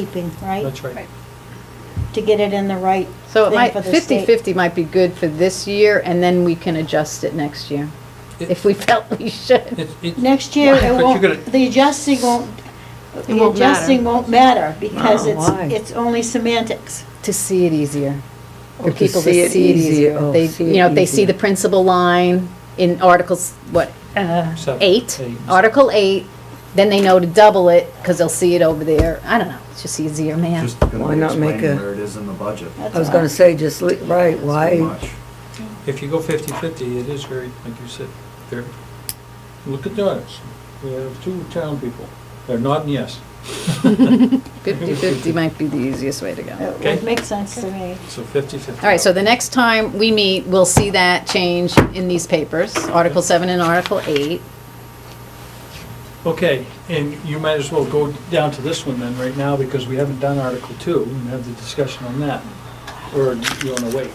keeping, right? That's right. To get it in the right So it thing might, for the state. 50/50 might be good for this year, and then we can adjust it next year, It- if we felt we should. It's, it's, Next year, But it you're won't, gonna- the adjusting won't, the won't matter. adjusting won't matter because Oh, it's, why? it's only semantics. To see it easier. Oh, For to people see it easier. Oh, They, see you it know, if they see easier. the principal line in Articles, what, uh, Seven, eight? eight. Article eight, then they know to double it, because they'll see it over there. I don't know, it's just easier, man. Just gonna Why not make explain a- where it is in the budget. That's I was all. gonna say, just, le- right, It's too why? much. if you go fifty-fifty, it is very, like you said, very, look at the others. We have two town people. They're nodding yes. 50/50 might be the easiest way to Oh. go. It Okay. would make sense to me. So fifty-fifty. All right, so the next time we meet, we'll see that change in these papers, Article seven and Article eight. Okay, and you might as well go down to this one then, right now, because we haven't done Article Two, and have the discussion on that. Or do you wanna wait?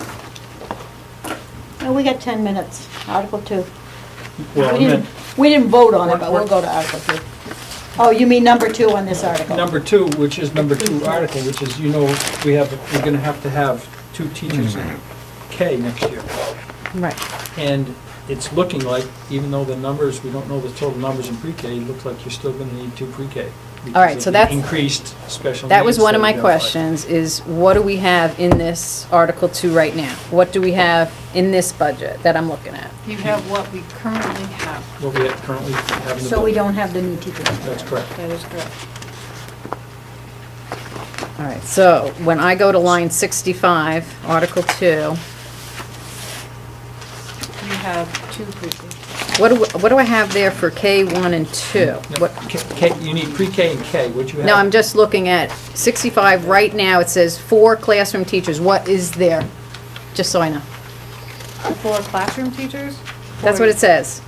Oh, we got 10 minutes, Article 2. Well, We and didn't, then, we didn't vote on it, but We're- we'll go to Article 2. Oh, you mean number 2 on this article? number two, which is number two article, which is, you know, we have, we're gonna have to have two teachers in K next year. Right. And it's looking like, even though the numbers, we don't know the total numbers in pre-K, it looks like you're still gonna need two pre-K. because right, of so the that's- Increased special needs. That was one of we my identified. questions, is what do we have in this Article 2 right now? What do we have in this budget that I'm looking at? You have what we currently have. What we currently have in the. So we budget. don't have the new teachers. That's correct. That is correct. All right, so when I go to line 65, Article 2, You have two pre-K. what do, what do I have there for K1 and 2? No, What- K, K- you need pre-K and K, what you have. No, I'm just looking at 65, right now it says four classroom teachers, what is there? Just so I know. Four classroom teachers? That's what it says.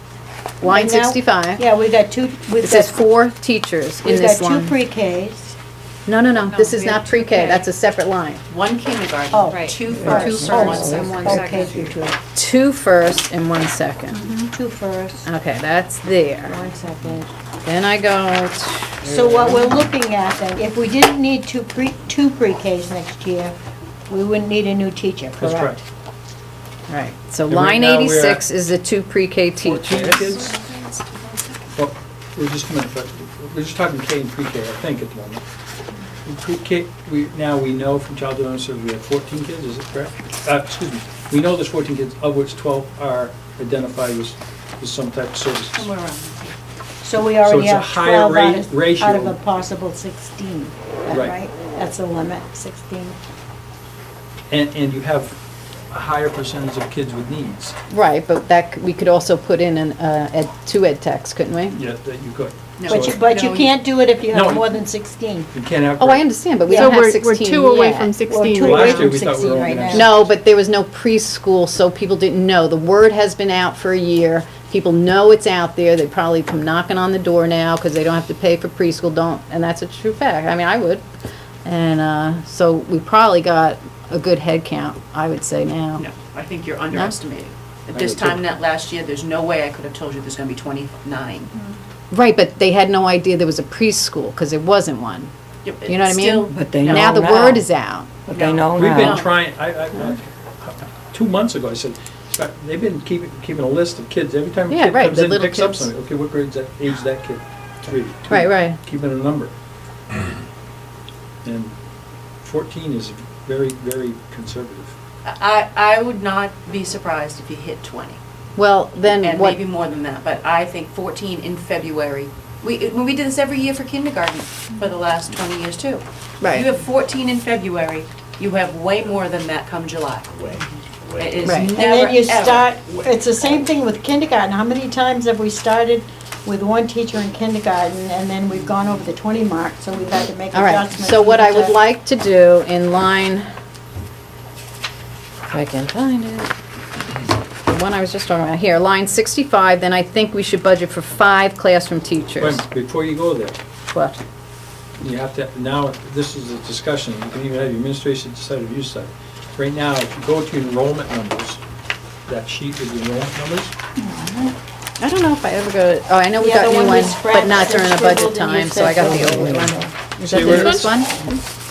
Line Right now- 65, Yeah, we got two, we've it says got, four teachers in we've this got line. two pre-Ks. No, no, no, No, this is we have not pre-K, 2K. that's a separate line. One Oh. kindergarten, Right. two Yeah. Two first, first. one Oh. second. one Okay, second. through two. Two first and one second. Mm-hmm. Two first, Okay, that's there. one second. Then I go, t- So what we're looking at then, if we didn't need two pre, two pre-Ks next year, we wouldn't need a new teacher, That's correct? correct. right, so And right line now we're 86 is the two pre-K Fourteen teachers. kids? Well, we're just, a minute, but we're just talking K and pre-K, I think, at the moment. In Pre-K, we, now we know from child development services, we have fourteen kids, is it correct? Uh, excuse me, we know there's fourteen kids, of which twelve are identified as, as some type of services. Somewhere around. So we So already it's a have higher twelve rate out of, out of ratio. a possible sixteen, is that Right. right? That's the limit, sixteen. And, and you have a higher percentage of kids with needs. Right, but that, c- we could also put in an, uh, ed, two ed techs, couldn't we? Yeah, that you could. No. But you, So but you No, you- can't do it if you No. have more than sixteen. You can't have. Oh, I understand, but we So don't have 16 We're two away yet. from We're 16. two right away Last year, from we thought we were sixteen right only now. gonna- No, but there was no preschool, so people didn't know. The word has been out for a year. People know it's out there. They probably come knocking on the door now because they don't have to pay for preschool, don't, and that's a true fact. I mean, I would. And, uh, so we probably got a good head count, I would say now. No, I think you're underestimating. At this I do too. time, that last year, there's no way I could have told you there's gonna be twenty-nine. Right, but they had no idea there was a preschool because there wasn't one. You know what I mean? But they know Now the word is out. But they Oh, know We've been now. trying, I, I, two months ago, I said, "Scott, they've been keeping, keeping a list of kids, every time a Yeah, kid right, comes the in, little picks up kids. something, okay, what grade's that, age that kid? Three. two, Right, right. Keeping a number. And fourteen is very, very conservative. I, I would not be surprised if you hit twenty. Well, then And what? maybe more than that, but I think fourteen in February. We, when we did this every year for kindergarten for the last twenty years too. Right. You have fourteen in February, you have way more than that come July. It Right. is And never, And then you ever- start, it's the same thing with kindergarten. How many times have we started with one teacher in kindergarten and then we've gone over the twenty mark, so we've had to make All right, adjustments. so what I would to- like to do in line, if I can find it, the one I was just talking about, here, line 65, then I think we should budget for five classroom Wait a teachers. minute, Before you go there, What? you have to, now, this is a discussion, you can even have your administration side of your side. Right now, if you go to enrollment numbers, that sheet with the enrollment numbers, I don't know if I ever go, to oh, I know we Yeah, got the new one we one, but scratched not and during the scribbled budget and you time, so I said got the don't old do one. it. Is that See the where- newest one?